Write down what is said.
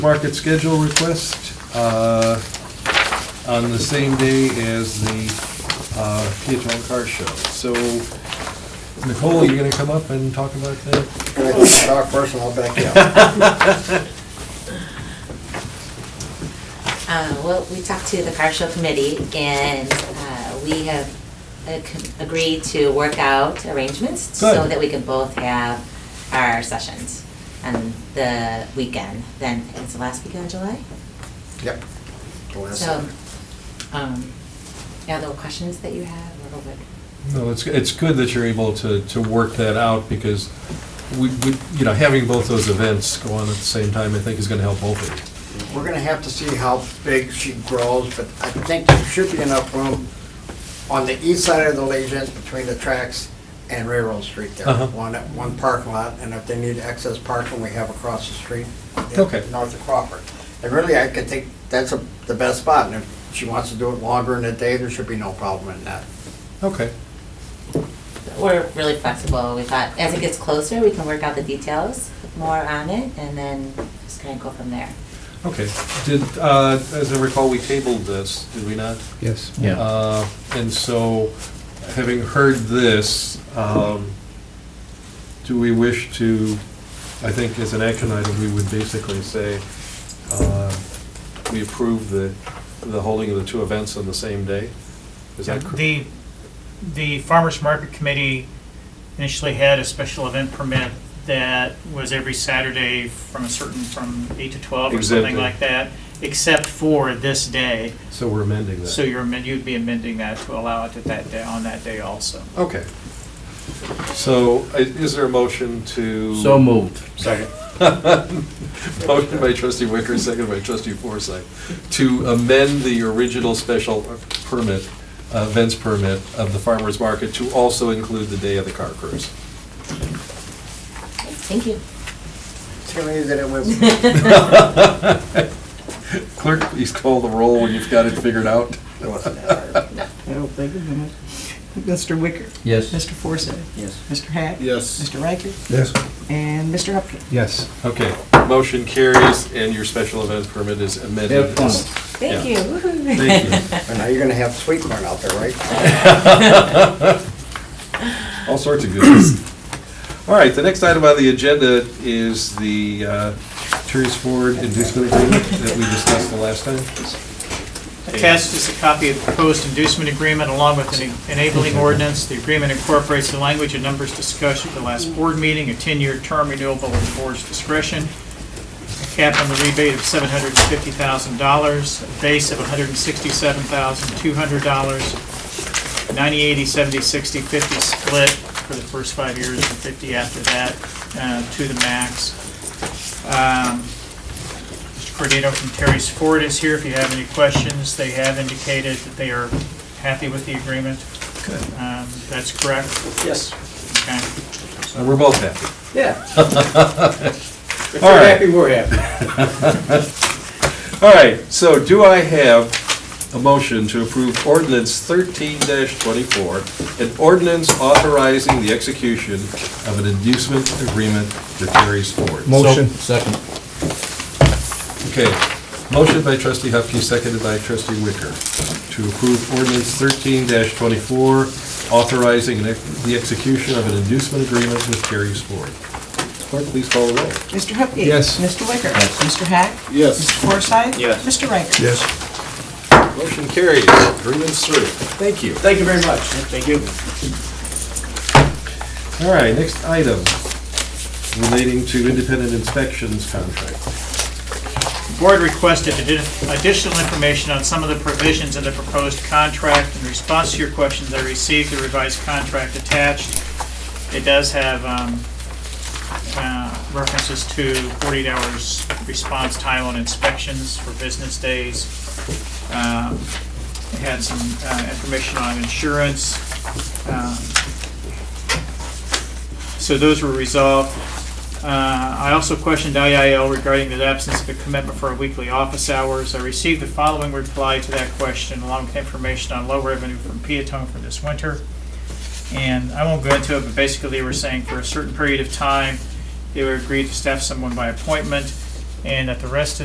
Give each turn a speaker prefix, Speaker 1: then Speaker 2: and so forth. Speaker 1: market schedule request uh, on the same day as the uh, Peatone Car Show. So Nicole, you're gonna come up and talk about that?
Speaker 2: Can I go talk first and I'll back you up?
Speaker 3: Uh, Well, we talked to the car show committee, and uh, we have uh, con- agreed to work out arrangements so
Speaker 1: Good.
Speaker 3: that we can both have our sessions on the weekend, then, I think it's the last weekend of July?
Speaker 2: Yep. The last
Speaker 3: So,
Speaker 2: one.
Speaker 3: um, yeah, there were questions that you have, or what?
Speaker 1: No, it's, it's good that you're able to, to work that out because we, we- you know, having both those events go on at the same time, I think is gonna help both of you.
Speaker 2: We're gonna have to see how big she grows, but I think there should be enough room on the east side of the Legions between the tracks and Railroad Street there.
Speaker 1: Uh-huh.
Speaker 2: One, one parking lot, and if they need excess parking, we have across the street.
Speaker 1: Okay.
Speaker 2: North of Crawford. And really, I could think that's a- the best spot, and if she wants to do it longer in the day, there should be no problem in that.
Speaker 1: Okay,
Speaker 3: We're really flexible, we thought, as it gets closer, we can work out the details more on it, and then just kind of go from there.
Speaker 1: okay. Did, uh, as I recall, we tabled this, did we not?
Speaker 4: Yes.
Speaker 1: Uh, And so, having heard this, um, do we wish to, I think as an action item, we would basically say, uh, we approve the, the holding of the two events on the same day? Is that correct?
Speaker 5: The, the farmer's market committee initially had a special event permit that was every Saturday from a certain, from eight to twelve or
Speaker 1: Exactly.
Speaker 5: something like that, except for this day.
Speaker 1: So we're amending that?
Speaker 5: So you're, amend- you'd be amending that to allow it at that day, on that day also.
Speaker 1: Okay. So, i- is there a motion to?
Speaker 4: So moved.
Speaker 1: Second. Motion by trustee Wicker, second by trustee Forsythe, to amend the original special permit, uh, events permit of the farmer's market to also include the day of the car cruise.
Speaker 3: Thank you.
Speaker 2: Tell me that it was
Speaker 1: Clerk, please call the roll when you've got it figured out.
Speaker 2: it wasn't that hard.
Speaker 6: I don't think of that. Mr. Wicker,
Speaker 4: Yes.
Speaker 6: Mr. Forsyth,
Speaker 2: Yes.
Speaker 6: Mr. Hack.
Speaker 1: Yes.
Speaker 6: Mr. Riker,
Speaker 4: Yes.
Speaker 6: and Mr. Upton.
Speaker 4: Yes.
Speaker 1: Okay, motion carries, and your special event permit is amended.
Speaker 4: Have fun.
Speaker 3: Thank you.
Speaker 1: Yeah.
Speaker 3: Woohoo.
Speaker 1: Thank you.
Speaker 2: And now you're gonna have sweet corn out there, right?
Speaker 1: All sorts of goodies. All right, the next item on the agenda is the uh, Terry's Ford inducement agreement that we discussed the last time.
Speaker 5: Attached is a copy of the proposed inducement agreement along with an enabling ordinance. The agreement incorporates the language and numbers discussed at the last board meeting, a 10-year term renewable at the board's discretion, a cap on the rebate of $750,000, a base of $167,200, 90, 80, 70, 60, 50 split for the first five years and 50 after that uh, to the max. Um, Cordino from Terry's Ford is here if you have any questions. They have indicated that they are happy with the agreement. Um, That's correct?
Speaker 2: Yes.
Speaker 5: Okay.
Speaker 1: And we're both happy.
Speaker 2: Yeah.
Speaker 1: All right,
Speaker 2: we're happy.
Speaker 1: all right, so do I have a motion to approve ordinance thirteen twenty-four, an ordinance authorizing the execution of an inducement agreement for Terry's Ford?
Speaker 4: Motion. Second.
Speaker 1: Okay, motion by trustee Hupkey, seconded by trustee Wicker, to approve ordinance thirteen twenty-four, authorizing an ex- the execution of an inducement agreement with Terry's Ford. Clerk, please call the roll.
Speaker 6: Mr. Hupkey.
Speaker 4: Yes.
Speaker 6: Mr. Wicker. Mr. Hack.
Speaker 1: Yes.
Speaker 6: Mr. Forsyth.
Speaker 5: Yes.
Speaker 6: Mr. Riker.
Speaker 4: Yes.
Speaker 1: Motion carries, agreement's through. Thank you.
Speaker 5: Thank you very much. Thank you.
Speaker 1: All right, next item relating to independent inspections contract.
Speaker 5: Board requested addi- additional information on some of the provisions in the proposed contract. In response to your questions, I received the revised contract attached. It does have um, uh, references to 48 hours response time on inspections for business days. Um, It had some uh, information on insurance. Um, So those were resolved. Uh, I also questioned IIL regarding the absence of a commitment for weekly office hours. I received the following reply to that question, along with information on low revenue from Peatone for this winter. And I won't go into it, but basically they were saying for a certain period of time, they would agree to staff someone by appointment, and that the rest of